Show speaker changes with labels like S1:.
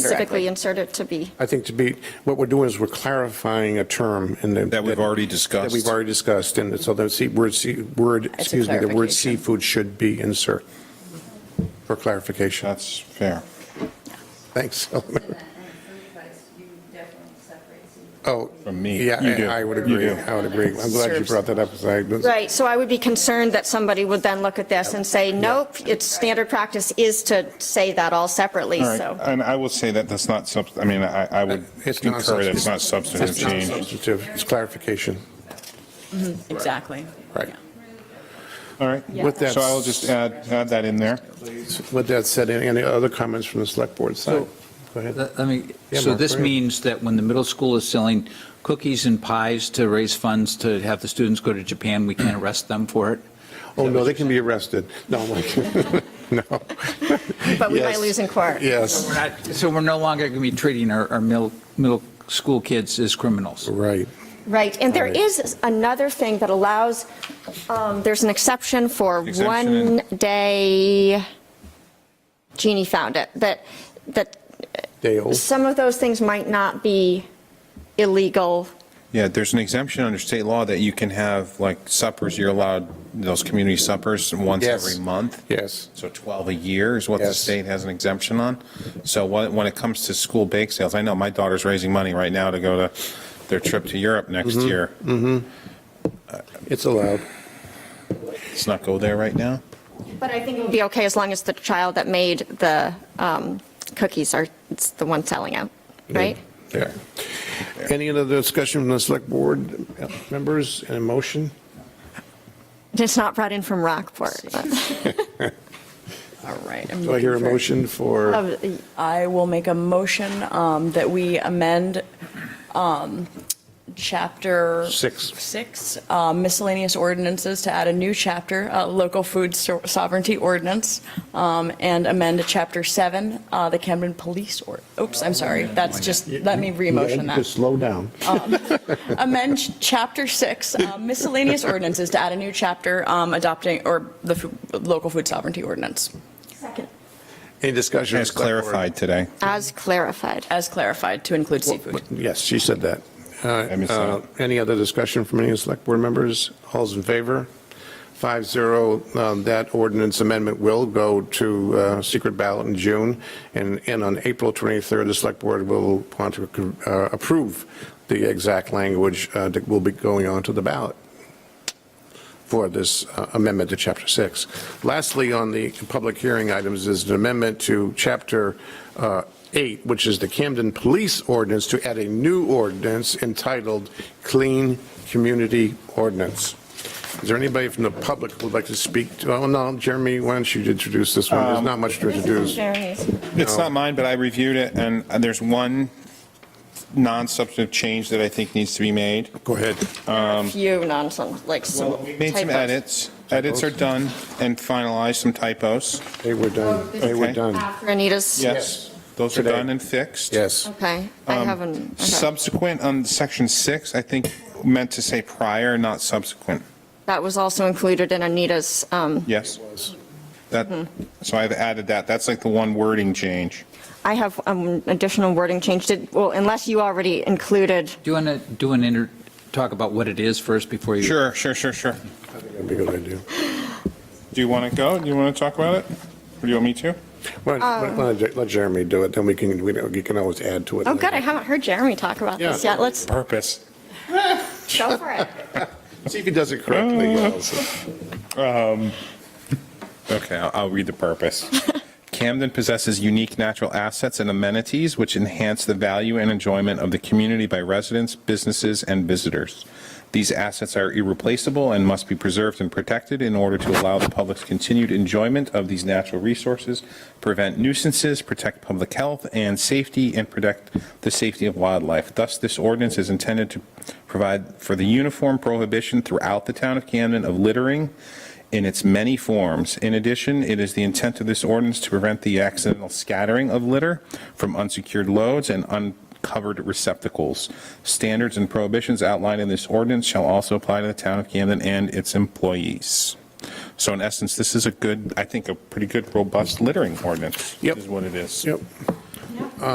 S1: specifically insert it to be.
S2: I think to be, what we're doing is we're clarifying a term in the.
S3: That we've already
S2: That
S3: discussed.
S2: we've already discussed, and so the sea- word, sea- word,
S1: a
S2: excuse me, the word
S1: clarification.
S2: seafood should be insert for clarification.
S3: That's fair.
S2: Thanks.
S4: And food price, you definitely separate seafood.
S2: Oh,
S3: From me.
S2: yeah,
S3: You do.
S2: I I would
S3: You
S2: agree,
S3: do.
S2: I would agree. I'm glad you
S1: Serves-
S2: brought that up, 'cause I-
S1: Right, so I would be concerned that somebody would then look at this and say, nope, it's standard practice is to say that all separately,
S3: All right,
S1: so.
S3: and I will say that that's not sub, I mean, I, I would
S2: It's
S3: concur
S2: non-substantive.
S3: that's not substantive
S2: It's not
S3: change.
S2: substantive, it's clarification,
S5: Exactly.
S2: right.
S3: All right.
S2: With that-
S3: So I will just add, add that in there.
S2: With that said, any any other comments from the select board side?
S6: So-
S2: Go ahead.
S6: Let let me,
S2: Yeah,
S6: so
S2: Mark,
S6: this
S2: go ahead.
S6: means that when the middle school is selling cookies and pies to raise funds to have the students go to Japan, we can't arrest them for it?
S2: Oh, no, they can be arrested. No, I'm like, no.
S1: But we
S2: Yes.
S1: might lose in court.
S2: Yes,
S6: We're not- So we're no longer going to be treating our, our middle, middle school kids as criminals?
S2: right.
S1: Right, and there
S2: Right.
S1: is another thing that allows, um, there's an exception for
S3: Exemption.
S1: one day, Jeannie found it, that, that
S2: Dale,
S1: some of those things might not be illegal.
S3: Yeah, there's an exemption under state law that you can have, like suppers, you're allowed those community suppers once
S2: Yes.
S3: every month.
S2: yes.
S3: So 12 a year is what the
S2: Yes.
S3: state has an exemption on. So when, when it comes to school bake sales, I know my daughter's raising money right now to go to their trip to Europe next
S2: Mm-hmm.
S3: year.
S2: It's allowed.
S3: Let's not go there right now.
S1: But I think it would be okay as long as the child that made the um, cookies are, it's the one selling out, right?
S2: Yeah. Any other discussion from the select board members and a motion?
S1: It's not brought in from Rockport. but-
S5: All right. I'm
S2: Do I hear a
S5: looking for-
S2: motion for,
S5: Uh,
S7: I will make a motion um, that we amend um, Chapter
S2: Six.
S7: Six, um, miscellaneous ordinances to add a new chapter, uh, local food so- sovereignty ordinance, um, and amend Chapter Seven, uh, the Camden Police, or, oops, I'm sorry, that's just, let me
S2: Yeah,
S7: re-motion
S2: you
S7: that Um,
S2: could Slow down.
S7: amend ch- Chapter 6 uh, miscellaneous ordinances to add a new chapter um, adopting, or the fu- local food sovereignty ordinance,
S2: Any discussion?
S3: It's clarified today.
S1: As clarified.
S7: as clarified, to include seafood.
S2: Yes, she said that.
S3: I missed
S2: Uh,
S3: that.
S2: Any other discussion from any of the select board members? All's in favor? Five zero, um, that ordinance amendment will go to uh, secret ballot in June, and, and on April 23rd, the select board will want to uh, approve the exact language uh, that will be going onto the ballot for this uh, amendment to Chapter 6. Lastly, on the public hearing items is an amendment to Chapter uh, 8, which is the Camden Police Ordinance, to add a new ordinance entitled Clean Community Ordinance. Is there anybody from the public who would like to speak? to- Oh, no, Jeremy, why don't you introduce this one? There's not much
S1: Um,
S2: to introduce.
S3: It's not mine, but I reviewed it, and there's one non-substantive change that I think needs to be made.
S2: Go ahead.
S1: Few nonsense, like some
S3: Well, we made some
S1: typos.
S3: edits. Edits are done and finalized, some typos.
S2: They were done. They were
S3: Okay.
S2: done.
S1: After Anita's,
S3: Yes, those are
S2: Today.
S3: done and fixed.
S2: Yes.
S1: okay, I
S3: Um,
S1: haven't. okay.
S3: Subsequent on section six, I think meant to say prior, not subsequent.
S1: That was also included in Anita's, um,
S3: Yes? That,
S1: Mm-hmm.
S3: so I've added that. That's like the one wording change.
S1: I have um, additional wording change, Did- well, unless you already included,
S6: Do you want to, do an inter, talk about what it is first before you?
S3: Sure, sure, sure, sure.
S2: That'd be a good idea.
S3: Do you want to go? Do you want to talk about it? Or do you want me to?
S2: Why don't- why don't- Let Jeremy do it, then we can, we we can always add to it.
S1: Um, oh, good, I haven't heard Jeremy talk about this
S2: Yeah.
S1: yet, let's
S3: Purpose.
S1: go for it.
S2: See if he does it correctly.
S3: Um, Okay, I'll, I'll read the purpose. Camden possesses unique natural assets and amenities which enhance the value and enjoyment of the community by residents, businesses, and visitors. These assets are irreplaceable and must be preserved and protected in order to allow the public's continued enjoyment of these natural resources, prevent nuisances, protect public health and safety, and protect the safety of wildlife. Thus, this ordinance is intended to provide for the uniform prohibition throughout the town of Camden of littering, in its many forms. In addition, it is the intent of this ordinance to prevent the accidental scattering of litter from unsecured loads and uncovered receptacles. Standards and prohibitions outlined in this ordinance shall also apply to the town of Camden and its employees. So in essence, this is a good, I think, a pretty good, robust littering ordinance.
S2: Yep.
S3: Is what it is.
S2: Yep.